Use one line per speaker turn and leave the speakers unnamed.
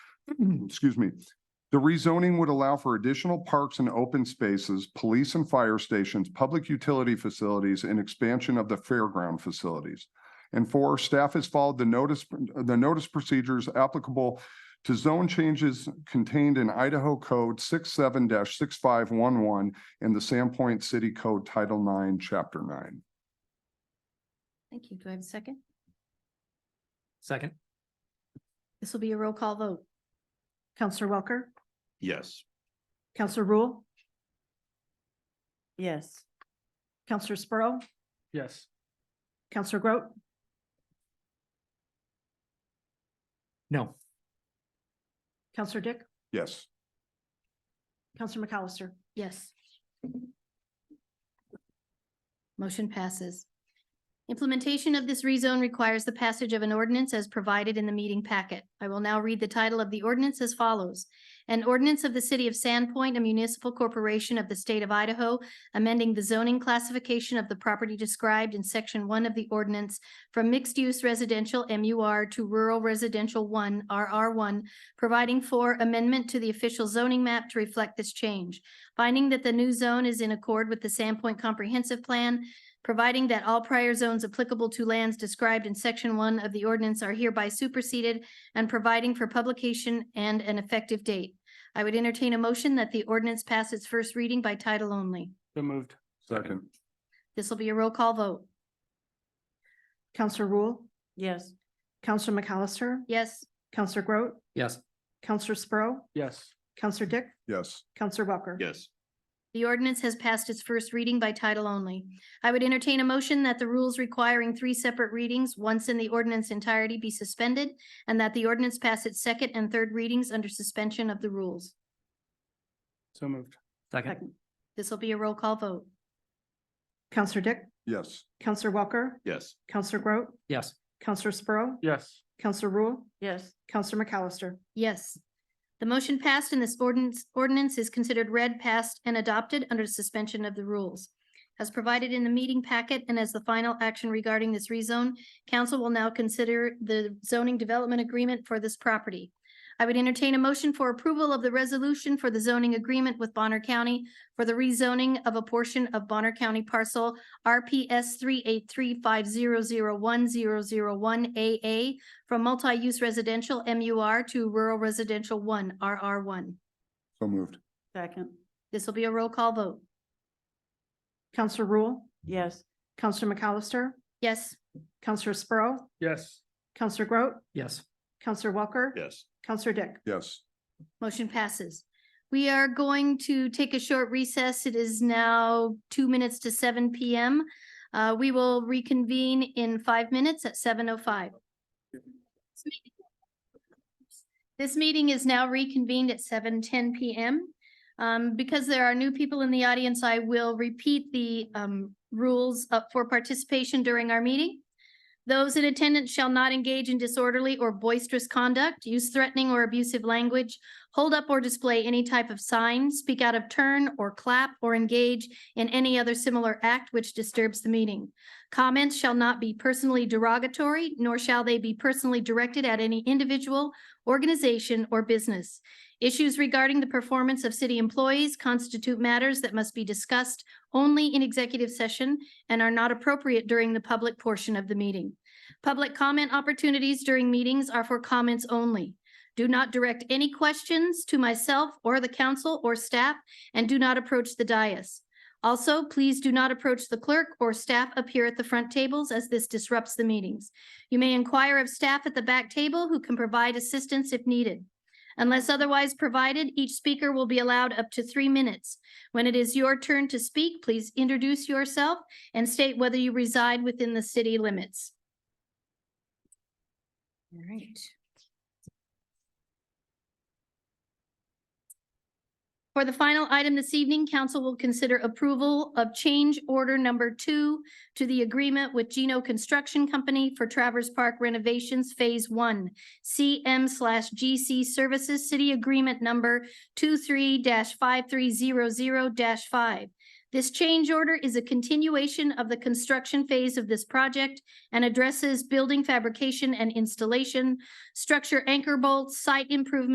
excuse me. The rezoning would allow for additional parks and open spaces, police and fire stations, public utility facilities, and expansion of the fairground facilities. And four, staff has followed the notice, the notice procedures applicable to zone changes contained in Idaho Code 67 six five one one and the Sandpoint City Code Title Nine, Chapter Nine.
Thank you. Do I have a second?
Second?
This will be a roll call vote.
Counselor Welker?
Yes.
Counselor Rule?
yes,
Counselor Sprow?
Yes.
Counselor Groot?
No.
Counselor Dick?
Yes.
Counselor McAllister?
Yes. Motion passes. Implementation of this rezone requires the passage of an ordinance as provided in the meeting packet. I will now read the title of the ordinance as follows. An ordinance of the City of Sandpoint, a municipal corporation of the state of Idaho, amending the zoning classification of the property described in section one of the ordinance from mixed-use residential MUR to rural residential one, RR one, providing for amendment to the official zoning map to reflect this change finding that the new zone is in accord with the Sandpoint Comprehensive Plan, providing that all prior zones applicable to lands described in section one of the ordinance are hereby superseded, and providing for publication and an effective date. I would entertain a motion that the ordinance pass its first reading by title only.
So moved.
Second.
This will be a roll call vote.
Counselor Rule?
yes,
Counselor McAllister?
Yes,
Counselor Groot?
Yes.
Counselor Sprow?
Yes.
Counselor Dick?
Yes.
Counselor Welker?
Yes.
the ordinance has passed its first reading by title only. I would entertain a motion that the rules requiring three separate readings, once in the ordinance entirety, be suspended, and that the ordinance pass its second and third readings under suspension of the rules.
So moved. Second?
Second.
This will be a roll call vote.
Counselor Dick?
Yes.
Counselor Welker?
Yes.
Counselor Groot?
Yes.
Counselor Sprow?
Yes.
Counselor Rule?
yes,
Counselor McAllister?
Yes. The motion passed and this ordinance, ordinance is considered read, passed, and adopted under suspension of the rules. As provided in the meeting packet and as the final action regarding this rezone, council will now consider the zoning development agreement for this property. I would entertain a motion for approval of the resolution for the zoning agreement with Bonner County for the rezoning of a portion of Bonner County parcel RPS three eight three five zero zero one zero zero one AA from multi-use residential MUR to rural residential one, RR one.
So moved.
second,
This will be a roll call vote.
Counselor Rule?
yes,
Counselor McAllister?
Yes,
Counselor Sprow?
Yes.
Counselor Groot?
Yes.
Counselor Welker?
Yes.
Counselor Dick?
Yes.
motion passes. We are going to take a short recess. It is now two minutes to seven PM. Uh, we will reconvene in five minutes at seven oh five. This meeting is now reconvened at seven ten PM. Um, because there are new people in the audience, I will repeat the um rules up for participation during our meeting. Those in attendance shall not engage in disorderly or boisterous conduct, use threatening or abusive language, hold up or display any type of sign, speak out of turn or clap or engage in any other similar act which disturbs the meeting. Comments shall not be personally derogatory, nor shall they be personally directed at any individual, organization, or business. Issues regarding the performance of city employees constitute matters that must be discussed only in executive session and are not appropriate during the public portion of the meeting. Public comment opportunities during meetings are for comments only. Do not direct any questions to myself or the council or staff, and do not approach the dais. Also, please do not approach the clerk or staff up here at the front tables as this disrupts the meetings. You may inquire of staff at the back table who can provide assistance if needed. Unless otherwise provided, each speaker will be allowed up to three minutes. When it is your turn to speak, please introduce yourself and state whether you reside within the city limits. All right. For the final item this evening, council will consider approval of change order number two to the agreement with Gino Construction Company for Traverse Park renovations Phase One, CM slash GC Services City Agreement Number 23-5300-5. This change order is a continuation of the construction phase of this project and addresses building fabrication and installation, structure anchor bolts, site improvement